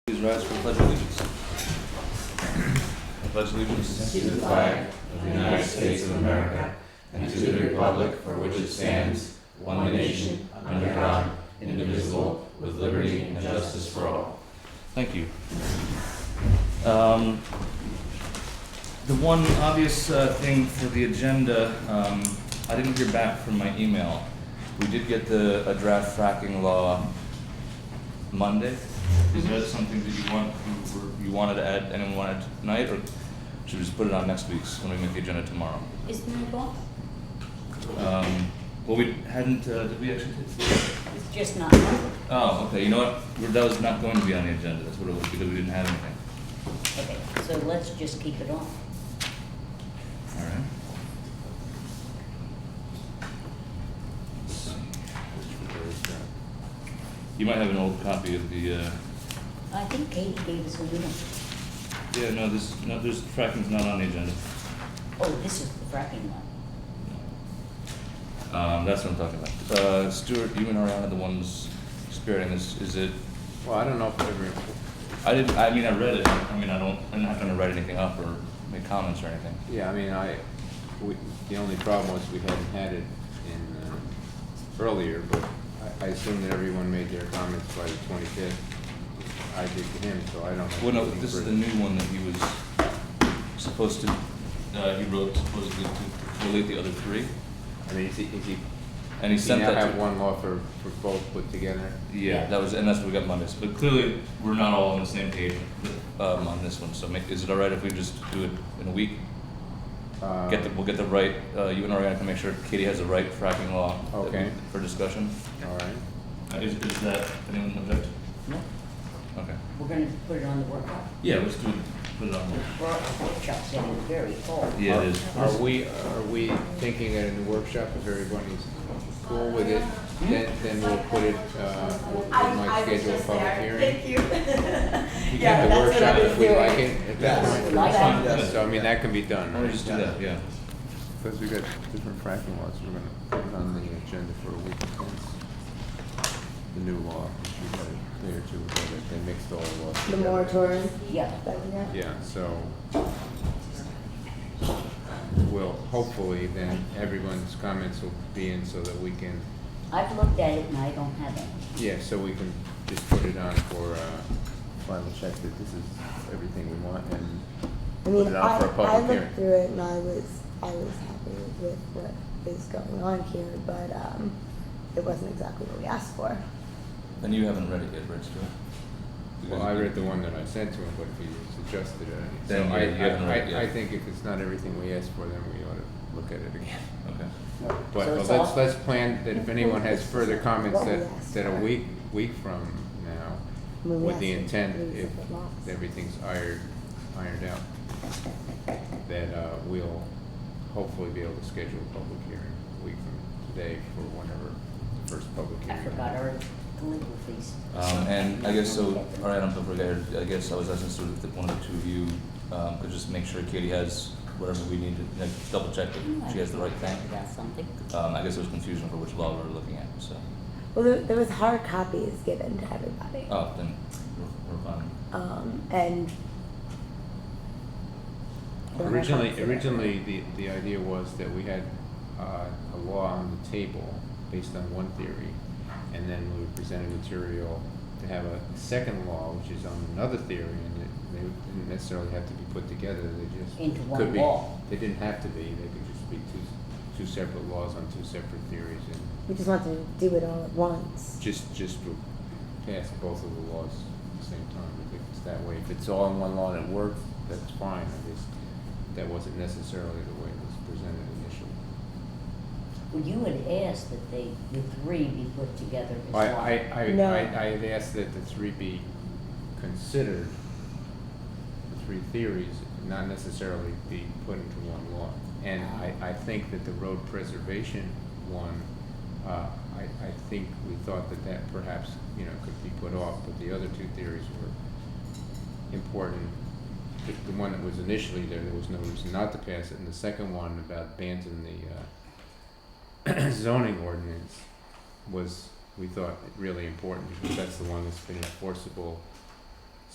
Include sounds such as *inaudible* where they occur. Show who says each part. Speaker 1: Please rise for the pledge of allegiance. I Pledge allegiance.
Speaker 2: to the flag of the United States of America and to the republic for which it stands, one nation, under God, indivisible, with liberty and justice for all.
Speaker 1: Thank you. Um, The one obvious uh, thing for the agenda, um, I didn't hear back from my email. We did get the, a draft fracking law Monday. Is that something that you want, you were- you wanted to add, anyone wanted tonight, or should we just put it on next week's, when we make the agenda tomorrow?
Speaker 3: Is doable,
Speaker 1: Um, Well, we hadn't, uh, did we actually?
Speaker 3: it's just not doable.
Speaker 1: Oh, okay, you know what, We're- that was not going to be on the agenda, that's what it was, because we didn't have anything.
Speaker 3: Okay, so let's just keep it on.
Speaker 1: All right. You might have an old copy of the, uh,
Speaker 3: I think Katie gave us a new one.
Speaker 1: yeah, no, this, no, there's, fracking's not on the agenda.
Speaker 3: Oh, this is the fracking one.
Speaker 1: Um, that's what I'm talking about. Uh, Stuart, you and Ariana are the ones spearheading this, is it,
Speaker 2: Well, I don't know if it ever,
Speaker 1: I didn't, I mean, I read it, I mean, I don't, I'm not gonna write anything up or make comments or anything.
Speaker 2: yeah, I mean, I, we, the only problem was we hadn't had it in, uh, earlier, but I, I assume that everyone made their comments by the twenty-fifth. I did to him, so I don't. have
Speaker 1: Well, no,
Speaker 2: anything
Speaker 1: this is the
Speaker 2: further.
Speaker 1: new one that he was supposed to, uh, he wrote supposedly to relate the other three,
Speaker 2: I mean, is he, is he,
Speaker 1: and he
Speaker 2: does he
Speaker 1: sent that
Speaker 2: now
Speaker 1: to.
Speaker 2: have one law for, for both put together?
Speaker 1: Yeah, that was, and that's what we got Mondays. But clearly, we're not all on the same page um, on this one. So ma- is it all right if we just do it in a week?
Speaker 2: Uh,
Speaker 1: Get the, we'll get the right, uh, you and I are gonna make sure Katie has the right fracking law. that we-
Speaker 2: Okay.
Speaker 1: For discussion.
Speaker 2: All right.
Speaker 1: Uh, Is, is that, anyone object?
Speaker 3: No,
Speaker 1: Okay.
Speaker 3: we're gonna put it on the workshop.
Speaker 1: Yeah, let's do, it. put it on.
Speaker 3: The wor- workshop's in very cold.
Speaker 1: Yeah, it is.
Speaker 2: Are we, are we thinking that in the workshop, if everybody's cool with it, then, then we'll put it, uh, we'll we
Speaker 4: I,
Speaker 2: might
Speaker 4: I was
Speaker 2: schedule a
Speaker 4: just
Speaker 2: public
Speaker 4: there,
Speaker 2: hearing?
Speaker 4: thank you. *laughs*
Speaker 2: We can
Speaker 4: Yeah,
Speaker 2: have the
Speaker 4: that's what I
Speaker 2: workshop
Speaker 4: was
Speaker 2: if we
Speaker 4: doing.
Speaker 2: like it at that
Speaker 4: Yes.
Speaker 2: point.
Speaker 3: Like that.
Speaker 1: Yes.
Speaker 2: So I mean, that can be done,
Speaker 1: Why don't we just do that, yeah.
Speaker 2: Because we got different fracking laws, we're gonna put it on the agenda for a week since the new law, which we had a day or two ago, that they mixed all the laws
Speaker 5: The
Speaker 2: together.
Speaker 5: moratorium,
Speaker 3: Yeah,
Speaker 5: that, yeah.
Speaker 2: Yeah, so we'll, hopefully then everyone's comments will be in so that we can,
Speaker 3: I've looked at it and I don't have any.
Speaker 2: yeah, so we can just put it on for, uh, final check that this is everything we want and
Speaker 5: I
Speaker 2: put
Speaker 5: mean,
Speaker 2: it
Speaker 5: I,
Speaker 2: out for a
Speaker 5: I
Speaker 2: public
Speaker 5: looked
Speaker 2: hearing.
Speaker 5: through it and I was, I was happy with what is going on here, but, um, it wasn't exactly what we asked for.
Speaker 1: And you haven't read it yet, right, Stuart?
Speaker 2: Well, I read the one that I sent to him, but he suggested it. So
Speaker 1: Then you-
Speaker 2: I,
Speaker 1: you haven't read it
Speaker 2: I, I, I
Speaker 1: yet.
Speaker 2: think if it's not everything we asked for, then we ought to look at it again.
Speaker 1: Okay.
Speaker 2: But
Speaker 3: So
Speaker 2: but
Speaker 3: it's
Speaker 2: let's,
Speaker 3: all-
Speaker 2: let's plan that if anyone has further comments
Speaker 5: What we
Speaker 2: that,
Speaker 5: asked
Speaker 2: that a
Speaker 5: for.
Speaker 2: week, week from now,
Speaker 5: I mean, we
Speaker 2: with the
Speaker 5: asked for
Speaker 2: intent,
Speaker 5: three
Speaker 2: if
Speaker 5: separate lots.
Speaker 2: everything's ironed, ironed out, that uh, we'll hopefully be able to schedule a public hearing a week from today for whenever the first public
Speaker 3: I
Speaker 2: hearing.
Speaker 3: forgot our legal fees.
Speaker 1: Um, and I guess so, all right, um, I'm prepared, I guess I was asking sort of the, one of the two of you, um, could just make sure Katie has whatever we need to, like, double check that she has the right thing.
Speaker 3: About something.
Speaker 1: Um, I guess there was confusion for which law we were looking at, so,
Speaker 5: Well, there, there was hard copies given to everybody.
Speaker 1: oh, then we're, we're fine.
Speaker 5: Um, and. there were hard copies
Speaker 2: Originally,
Speaker 5: given.
Speaker 2: originally, the, the idea was that we had uh, a law on the table based on one theory, and then we presented material to have a second law, which is on another theory, and it- they didn't necessarily have to be put together, they just.
Speaker 3: Into one
Speaker 2: could be-
Speaker 3: law.
Speaker 2: They didn't have to be, they could just be two, two separate laws on two separate theories, and
Speaker 5: We just wanted to do it all at once.
Speaker 2: just, just to pass both of the laws at the same time, if it's that way. If it's all in one law and it works, that's fine, I just, that wasn't necessarily the way it was presented initially.
Speaker 3: Well, you had asked that they, the three be put together as
Speaker 2: I,
Speaker 3: one.
Speaker 2: I,
Speaker 5: No.
Speaker 2: I, I, I had asked that the three be considered, the three theories, not necessarily be put into one law. And I, I think that the road preservation one, uh, I, I think we thought that that perhaps, you know, could be put off, but the other two theories were important. The, the one that was initially there, there was no reason not to pass it, and the second one about bans in the, uh, *clears throat* zoning ordinance was, we thought, really important, because that's the one that's been enforceable